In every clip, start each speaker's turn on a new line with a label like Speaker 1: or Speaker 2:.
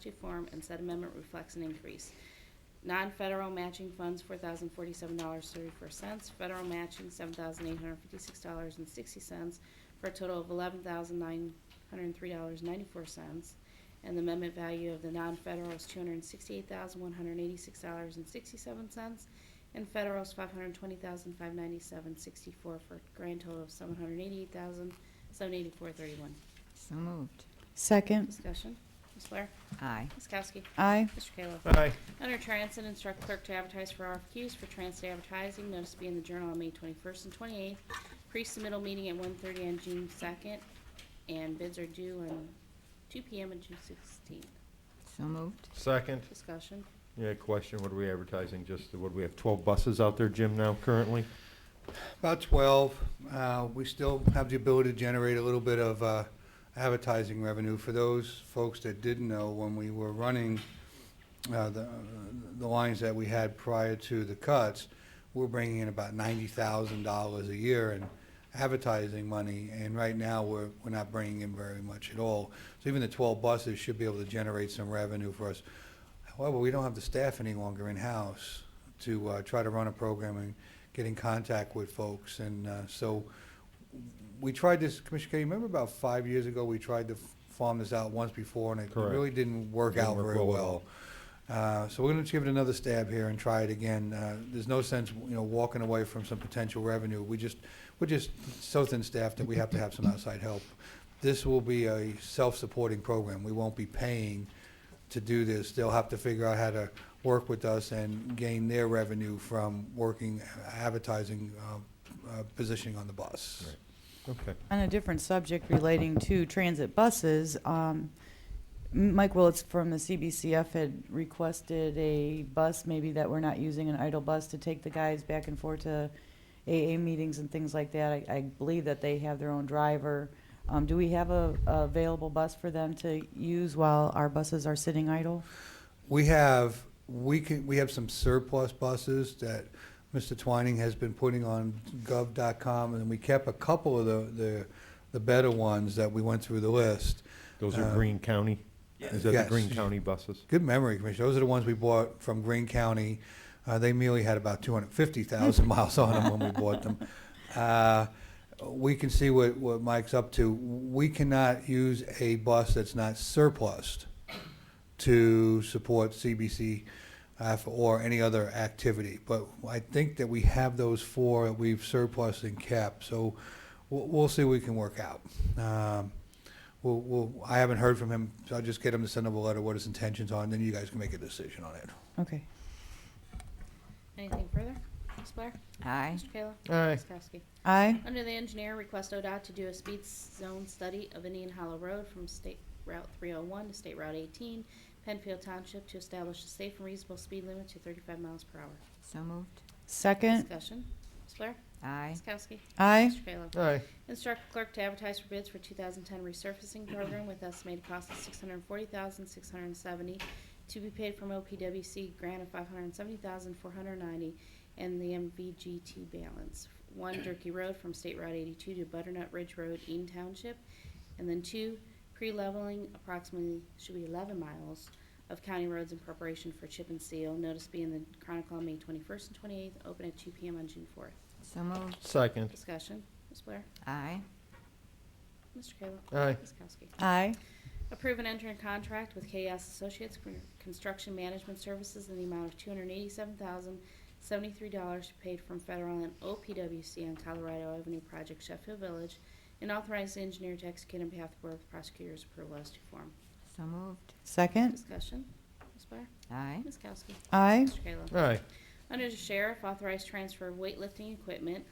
Speaker 1: to form, and said amendment reflects an increase. Non-federal matching funds, four thousand forty-seven dollars thirty-four cents, federal matching, seven thousand eight hundred fifty-six dollars and sixty cents, for a total of eleven thousand nine hundred and three dollars ninety-four cents. And the amendment value of the non-federal is two hundred and sixty-eight thousand one hundred and eighty-six dollars and sixty-seven cents, and federal is five hundred and twenty thousand five ninety-seven sixty-four, for a grand total of seven hundred and eighty-eight thousand seven eighty-four thirty-one.
Speaker 2: So moved.
Speaker 3: Second.
Speaker 1: Discussion, Ms. Blair?
Speaker 2: Aye.
Speaker 1: Ms. Kowski?
Speaker 3: Aye.
Speaker 1: Mr. Kayla?
Speaker 4: Aye.
Speaker 1: Under Transit, instruct clerk to advertise for RFQs for transit advertising, notice to be in the Journal on May 21st and 28th, pre-submittal meeting at 1:30 on June 2nd, and bids are due on 2 PM on June 16th.
Speaker 2: So moved.
Speaker 4: Second.
Speaker 1: Discussion.
Speaker 4: Yeah, question, what are we advertising, just, what, do we have 12 buses out there, Jim, now currently?
Speaker 5: About 12. Uh, We still have the ability to generate a little bit of uh, advertising revenue. For those folks that didn't know, when we were running uh, the the lines that we had prior to the cuts, we're bringing in about $90,000 a year in advertising money, and right now, we're we're not bringing in very much at all. So even the 12 buses should be able to generate some revenue for us. However, we don't have the staff any longer in-house to uh, try to run a program and get in contact with folks. And uh, so we tried this, Commissioner Kay, you remember about five years ago, we tried to farm this out once before, and it
Speaker 4: Correct.
Speaker 5: really didn't work
Speaker 4: Didn't
Speaker 5: out
Speaker 4: work
Speaker 5: very
Speaker 4: well at
Speaker 5: well. Uh, So we're going to give it another stab here and try it again. Uh, There's no sense, you know, walking away from some potential revenue. We just, we're just so thin-staffed that we have to have some outside help. This will be a self-supporting program. We won't be paying to do this. They'll have to figure out how to work with us and gain their revenue from working advertising uh, uh, positioning on the bus.
Speaker 4: Okay.
Speaker 3: On a different subject relating to transit buses, um, M- Mike Willetts from the CBCF had requested a bus, maybe that we're not using, an idle bus, to take the guys back and forth to AA meetings and things like that. I, I believe that they have their own driver. Um, do we have a, a available bus for them to use while our buses are sitting idle?
Speaker 5: We have, we can, we have some surplus buses that Mr. Twining has been putting on gov.com, and we kept a couple of the, the, the better ones that we went through the list.
Speaker 4: Those are
Speaker 5: Uh,
Speaker 4: Green County? Is that the
Speaker 5: Yes.
Speaker 4: Green County buses?
Speaker 5: Good memory, Commissioner. Those are the ones we bought from Greene County. Uh, they merely had about 250,000 miles on them when we bought them. Uh, we can see what, what Mike's up to. We cannot use a bus that's not surplused to support CBC uh, for- or any other activity. But I think that we have those four that we've surplus and kept, so we'll, we'll see what we can work out. Um, We'll, we'll, I haven't heard from him, so I'll just get him to send up a letter what his intentions are, and then you guys can make a decision on it.
Speaker 3: Okay.
Speaker 1: Anything further? Ms. Blair?
Speaker 2: Aye.
Speaker 1: Mr. Kayla?
Speaker 4: Aye.
Speaker 1: Ms. Kowski?
Speaker 3: Aye.
Speaker 1: Under the engineer, request ODOT to do a speed zone study of Indian Hollow Road from State Route 301 to State Route 18, Penfield Township, to establish a safe and reasonable speed limit to 35 miles per hour.
Speaker 2: So moved.
Speaker 3: Second.
Speaker 1: Discussion. Ms. Blair?
Speaker 2: Aye.
Speaker 1: Ms. Kowski?
Speaker 3: Aye.
Speaker 1: Mr. Kayla?
Speaker 4: Aye.
Speaker 1: Instruct clerk to advertise for bids for 2010 resurfacing program with estimated cost of 640670 to be paid from OPWC grant of 570490 and the MVGT balance. One, Durkey Road from State Route 82 to Butternut Ridge Road, Eaton Township. And then two, pre-leveling approximately, should be 11 miles of county roads in preparation for chip and seal. Notice being the Chronicle on May 21st and 28th, open at 2 PM on June 4th.
Speaker 2: So moved.
Speaker 4: Second.
Speaker 1: Discussion, Ms. Blair?
Speaker 2: Aye.
Speaker 1: Mr. Kayla?
Speaker 4: Aye.
Speaker 1: Ms. Kowski?
Speaker 3: Aye.
Speaker 1: Approve and enter in contract with KS Associates for Construction Management Services in the amount of two hundred eighty-seven thousand seventy-three dollars paid from federal and OPWC on Colorado Avenue Project Sheffield Village, and authorize the engineer to execute on behalf of the Board of Prosecutors' approval as to form.
Speaker 2: So moved.
Speaker 3: Second.
Speaker 1: Discussion, Ms. Blair?
Speaker 2: Aye.
Speaker 1: Ms. Kowski?
Speaker 3: Aye.
Speaker 1: Mr. Kayla?
Speaker 4: Aye.
Speaker 1: Under the sheriff, authorized transfer of weightlifting equipment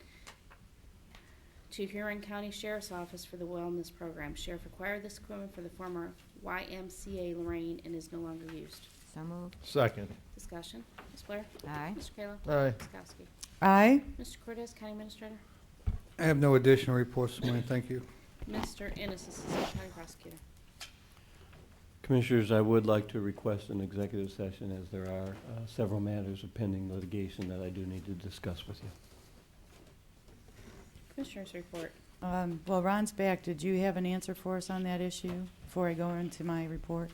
Speaker 1: to Huron County Sheriff's Office for the Wellness Program. Sheriff acquired this equipment for the former YMCA Lorraine and is no longer used.
Speaker 2: So moved.
Speaker 4: Second.
Speaker 1: Discussion, Ms. Blair?
Speaker 2: Aye.
Speaker 1: Mr. Kayla?
Speaker 4: Aye.
Speaker 1: Ms. Kowski?
Speaker 3: Aye.
Speaker 1: Mr. Cortez, County Administrator?
Speaker 5: I have no additional reports, this morning. thank you.
Speaker 1: Mr. Ennis, Assistant County Prosecutor.
Speaker 6: Commissioners, I would like to request an executive session as there are uh, several matters of pending litigation that I do need to discuss with you.
Speaker 1: Commissioners report.
Speaker 3: Um, Well, Ron's back. Did you have an answer for us on that issue before I go into my report?